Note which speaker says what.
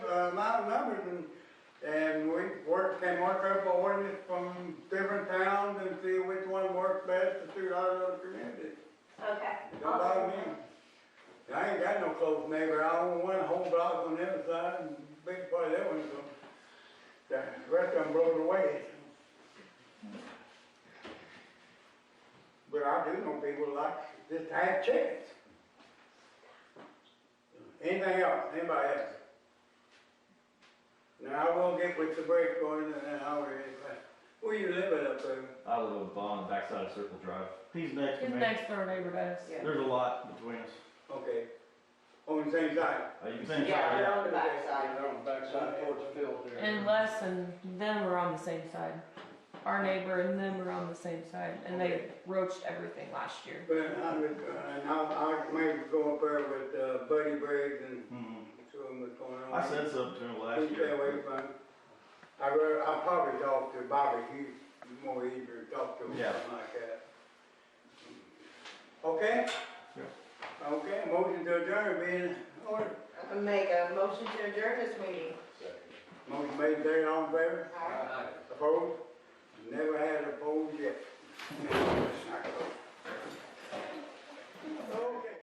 Speaker 1: work, can work up a ordinance from different towns and see which one works best to suit our little community.
Speaker 2: Okay.
Speaker 1: Don't bother me. I ain't got no close neighbor, I own one whole block on the other side, and big part of that one, so. The rest of them blown away. But I do know people like, just to have chickens. Anything else, anybody else? Now, I will get with the break going in an hour, but where you living up there?
Speaker 3: I live on the backside of Circle Drive.
Speaker 4: He's next to
Speaker 5: His
Speaker 4: me.
Speaker 5: next door neighbor does.
Speaker 2: Yeah.
Speaker 4: There's a lot between us.
Speaker 1: Okay, on the same side?
Speaker 3: Uh, you can
Speaker 4: Same
Speaker 3: see
Speaker 2: Yeah,
Speaker 4: side,
Speaker 2: they're on the backside.
Speaker 1: They're on the
Speaker 6: Backside towards the field there.
Speaker 5: And Les and them are on the same side. Our neighbor and them are on the same side, and they roached everything last year.
Speaker 1: But I would, and I, I maybe go up there with uh, Buddy Briggs and
Speaker 4: Mhm.
Speaker 1: show him what's going on.
Speaker 4: I said something to him
Speaker 1: He
Speaker 4: last
Speaker 1: stay away
Speaker 4: year.
Speaker 1: from him. I rather, I probably talk to Bobby, he's more easier to talk to, him,
Speaker 4: Yeah.
Speaker 1: something like that. Okay? Okay, motion to adjourn being in order.
Speaker 2: I Make a motion to adjourn this meeting.
Speaker 1: Motion made, there, all in favor? Opposed?